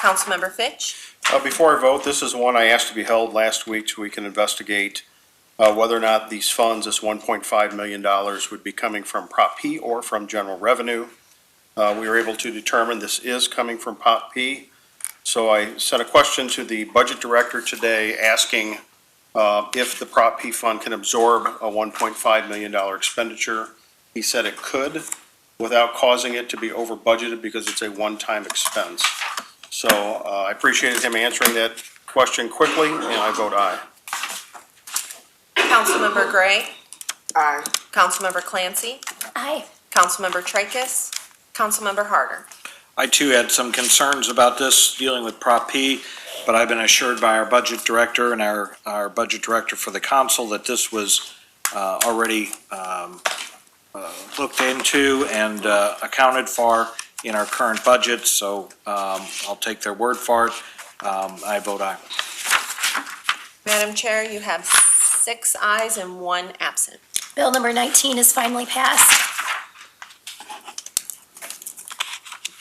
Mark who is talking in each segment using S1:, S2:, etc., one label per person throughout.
S1: Councilmember Fitch.
S2: Uh, Before I vote, this is one I asked to be held last week so we can investigate uh, whether or not these funds, this $1.5 million, would be coming from Prop P or from general revenue. Uh, We were able to determine this is coming from Prop P. So I sent a question to the budget director today asking uh, if the Prop P fund can absorb a $1.5 million expenditure. He said it could without causing it to be over budgeted because it's a one-time expense. So uh, I appreciated him answering that question quickly, and I vote aye.
S1: Councilmember Gray.
S3: Aye.
S1: Councilmember Clancy.
S4: Aye.
S1: Councilmember Tracus. Councilmember Harder.
S5: I too had some concerns about this dealing with Prop P, but I've been assured by our budget director and our, our budget director for the council that this was uh, already um, uh, looked into and uh, accounted for in our current budget, so um, I'll take their word for it. Um, I vote aye.
S1: Madam Chair, you have six ayes and one absent.
S4: Bill number 19 is finally passed.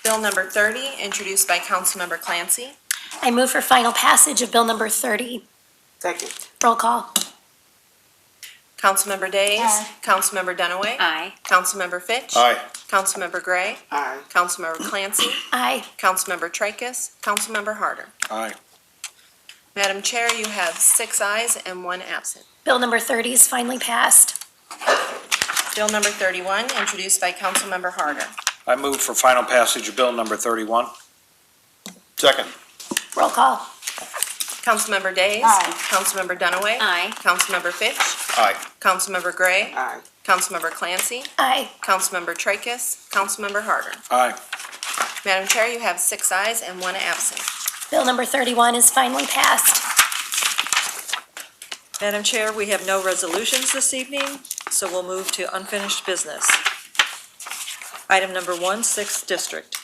S1: Bill number 30, introduced by Councilmember Clancy.
S4: I move for final passage of Bill number 30.
S3: Second.
S4: Roll call.
S1: Councilmember Days.
S4: Aye.
S1: Councilmember Dunaway.
S6: Aye.
S1: Councilmember Fitch.
S2: Aye.
S1: Councilmember Gray.
S3: Aye.
S1: Councilmember Clancy.
S4: Aye.
S1: Councilmember Tracus. Councilmember Harder.
S5: Aye.
S1: Madam Chair, you have six ayes and one absent.
S4: Bill number 30 is finally passed.
S1: Bill number 31, introduced by Councilmember Harder.
S5: I move for final passage of Bill number 31.
S2: Second.
S4: Roll call.
S1: Councilmember Days.
S6: Aye.
S1: Councilmember Dunaway.
S6: Aye.
S1: Councilmember Fitch.
S2: Aye.
S1: Councilmember Gray.
S3: Aye.
S1: Councilmember Clancy.
S4: Aye.
S1: Councilmember Tracus. Councilmember Harder.
S5: Aye.
S1: Madam Chair, you have six ayes and one absent.
S4: Bill number 31 is finally passed.
S7: Madam Chair, we have no resolutions this evening, so we'll move to unfinished business. Item number one, sixth district.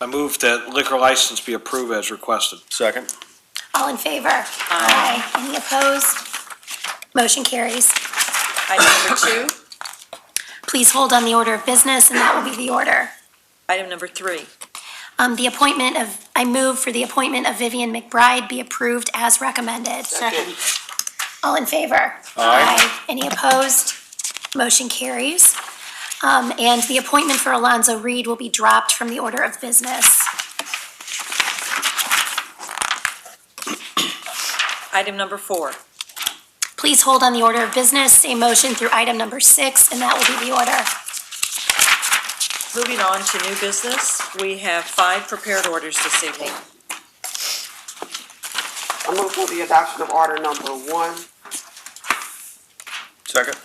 S5: I move that liquor license be approved as requested.
S2: Second.
S4: All in favor? Aye. Any opposed? Motion carries.
S7: Item number two,
S4: Please hold on the order of business, and that will be the order.
S7: item number three.
S4: Um, The appointment of, I move for the appointment of Vivian McBride be approved as recommended.
S3: Second.
S4: All in favor? Aye. Any opposed? Motion carries. Um, And the appointment for Alonzo Reed will be dropped from the order of business.
S7: Item number four.
S4: Please hold on the order of business a motion through item number six, and that will be the order.
S7: Moving on to new business, we have five prepared orders this evening.
S3: I move for the adoption of order number one.
S2: Second.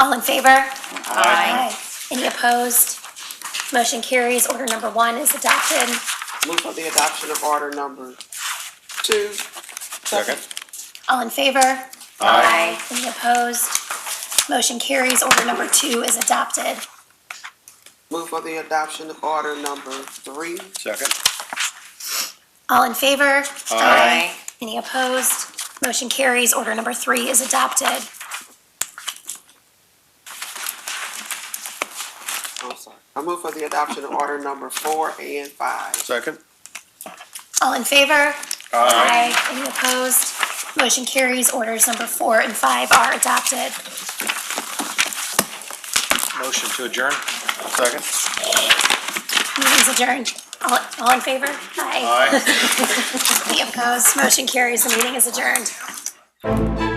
S4: All in favor? Aye. Any opposed? Motion carries. Order number one is adopted.
S3: Move for the adoption of order number two.
S2: Second.
S4: All in favor?
S2: Aye.
S4: Any opposed? Motion carries. Order number two is adopted.
S3: Move for the adoption of order number three.
S2: Second.
S4: All in favor?
S2: Aye.
S4: Any opposed? Motion carries. Order number three is adopted.
S3: I'm sorry. I move for the adoption of order number four and five.
S2: Second.
S4: All in favor? Aye. Any opposed? Motion carries. Orders number four and five are adopted.
S5: Motion to adjourn.
S2: Second.
S4: Meeting's adjourned. All, all in favor? Aye.
S2: Aye.
S4: Any opposed? Motion carries. The meeting is adjourned.